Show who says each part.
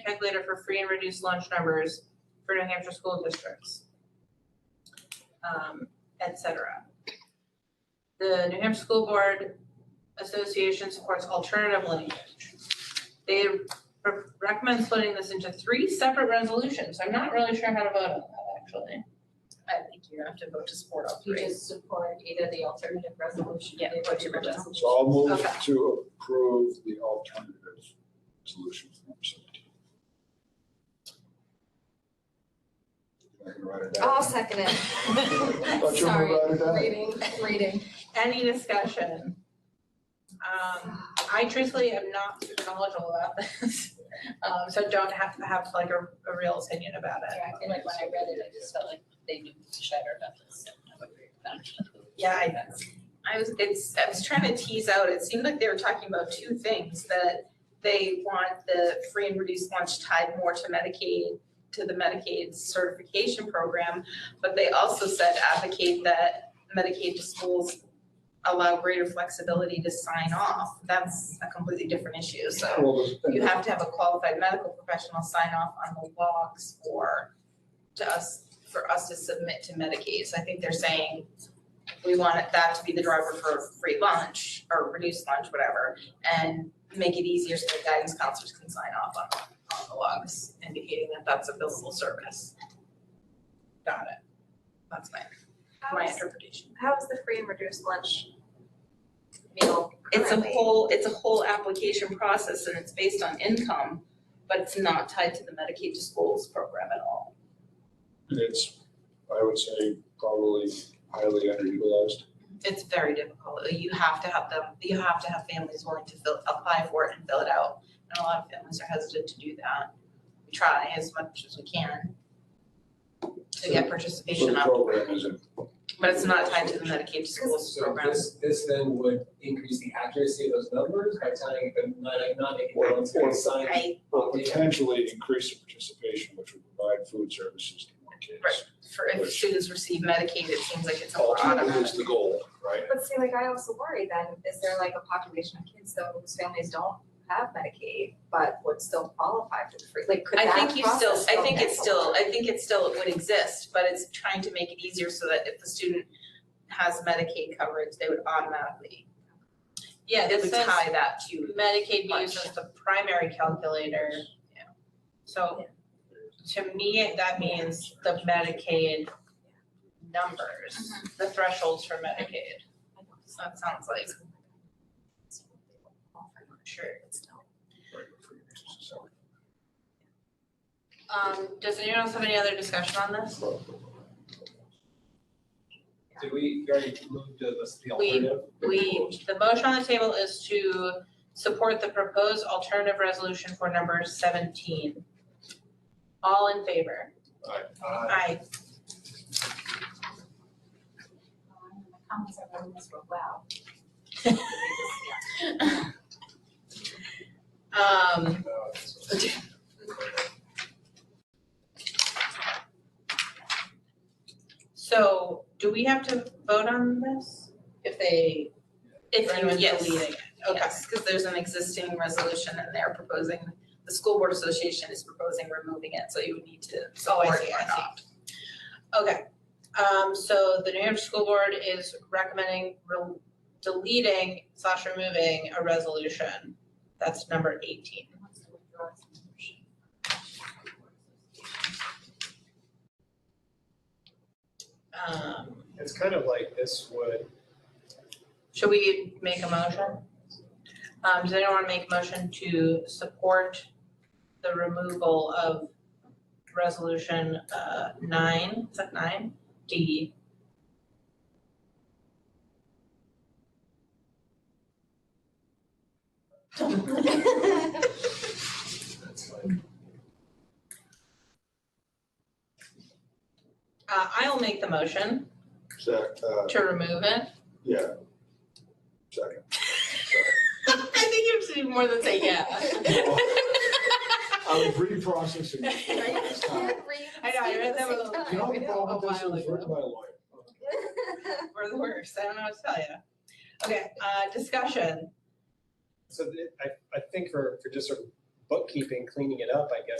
Speaker 1: calculator for free and reduced lunch numbers for New Hampshire school districts. Um, et cetera. The New Hampshire School Board Association supports alternative language. They re- recommend splitting this into three separate resolutions, I'm not really sure how to vote on that, actually.
Speaker 2: I think you have to vote to support all
Speaker 3: You
Speaker 2: three.
Speaker 3: just support either the alternative resolution.
Speaker 2: Yeah,
Speaker 3: the
Speaker 2: or two
Speaker 3: whatever
Speaker 2: resolutions.
Speaker 3: resolution.
Speaker 4: So I'll move
Speaker 1: Okay.
Speaker 4: to approve the alternative solution for number seventeen. I can write it down.
Speaker 5: I'll second it.
Speaker 2: Uh,
Speaker 4: Thought you were gonna write it down.
Speaker 5: Reading, reading.
Speaker 1: Any discussion? Um, I truthfully am not super knowledgeable about this, um, so don't have to have like a, a real opinion about it.
Speaker 2: Yeah, I feel like when I read it, I just felt like they knew better about this. so I would agree with that.
Speaker 1: Yeah, I,
Speaker 2: I was, it's, I was trying to tease out, it seemed like they were talking about two things, that they want the free and reduced lunch tied more to Medicaid, to the Medicaid certification program, but they also said advocate that Medicaid to schools allow greater flexibility to sign off. That's a completely different issue, so
Speaker 4: Well, the-
Speaker 2: you have to have a qualified medical professional sign off on the logs for, to us, for us to submit to Medicaid. So I think they're saying we want it- that to be the driver for free lunch or reduced lunch, whatever, and make it easier so that guidance counselors can sign off on, on the logs, indicating that that's a billable service. Got it. That's my,
Speaker 5: How
Speaker 2: my
Speaker 5: is,
Speaker 2: interpretation.
Speaker 5: how is the free and reduced lunch meal
Speaker 2: It's a
Speaker 5: currently?
Speaker 2: whole, it's a whole application process and it's based on income, but it's not tied to the Medicaid to schools program at all.
Speaker 4: It's, I would say, probably highly underutilized.
Speaker 2: It's very difficult. You have to have them, you have to have families willing to fill, apply for it and fill it out. And a lot of families are hesitant to do that. We try as much as we can to get
Speaker 4: So
Speaker 2: participation
Speaker 4: the
Speaker 2: up,
Speaker 4: program isn't,
Speaker 2: but it's not tied to the Medicaid to schools
Speaker 6: So
Speaker 2: program.
Speaker 6: this, this then would increase the accuracy of those numbers by telling them, not, not making
Speaker 4: Or-
Speaker 6: them
Speaker 4: or-
Speaker 6: sign.
Speaker 2: I,
Speaker 4: or potentially increase the participation, which would provide food services to more kids.
Speaker 2: Right. for if
Speaker 4: Which-
Speaker 2: students receive Medicaid, it seems like it's a lot of.
Speaker 4: Ultimately is the goal, right?
Speaker 5: But see, like, I also worry then, is there like a population of kids though whose families don't have Medicaid, but would still qualify for the free, like, could that
Speaker 2: I
Speaker 5: process
Speaker 2: think you still, I
Speaker 5: go
Speaker 2: think it's
Speaker 5: down?
Speaker 2: still, I think it still would exist, but it's trying to make it easier so that if the student has Medicaid coverage, they would automatically,
Speaker 1: yeah,
Speaker 2: it
Speaker 1: this
Speaker 2: would
Speaker 1: says
Speaker 2: tie that to.
Speaker 1: Medicaid
Speaker 2: Lunch.
Speaker 1: uses the primary calculator. So to me, that means the Medicaid numbers, the thresholds for Medicaid. So That sounds like, sure.
Speaker 4: Right, for food services, so.
Speaker 1: Um, does anyone else have any other discussion on this?
Speaker 6: Did we, we already moved to this, the
Speaker 1: We-
Speaker 6: alternative?
Speaker 1: We, the motion on the table is to support the proposed alternative resolution for number seventeen. All in favor?
Speaker 6: Uh,
Speaker 1: Aye.
Speaker 5: Um, The comments are really miserable, wow.
Speaker 1: Um,
Speaker 6: no, this was-
Speaker 1: so do we have to vote on this? If they,
Speaker 2: If
Speaker 1: if anyone's
Speaker 2: you, yes,
Speaker 1: deleting it? Okay.
Speaker 2: yes, because there's an existing resolution and they're proposing, the school board association is proposing removing it, so you would need to
Speaker 1: Oh,
Speaker 2: support
Speaker 1: I
Speaker 2: it or not.
Speaker 1: see, I see. Okay, um, so the New Hampshire School Board is recommending re- deleting slash removing a resolution. That's number eighteen. Um,
Speaker 7: It's kind of like this would,
Speaker 1: should we make a motion? Um, does anyone wanna make a motion to support the removal of resolution, uh, nine, is that nine? D.
Speaker 6: That's like.
Speaker 1: Uh, I'll make the motion
Speaker 4: Zach, uh,
Speaker 1: to remove it.
Speaker 4: yeah. Second.
Speaker 1: I think you have to do more than say yeah.
Speaker 4: I'm reprocessing. this time.
Speaker 1: I know, I read that with a-
Speaker 4: You know, the
Speaker 1: I know,
Speaker 4: problem
Speaker 1: a
Speaker 4: with this
Speaker 1: while
Speaker 4: is
Speaker 1: ago.
Speaker 4: written by a lawyer.
Speaker 1: We're the worst, I don't know what to tell you. Okay, uh, discussion,
Speaker 7: so th- I, I think for, for just sort of
Speaker 6: bookkeeping, cleaning it up, I guess,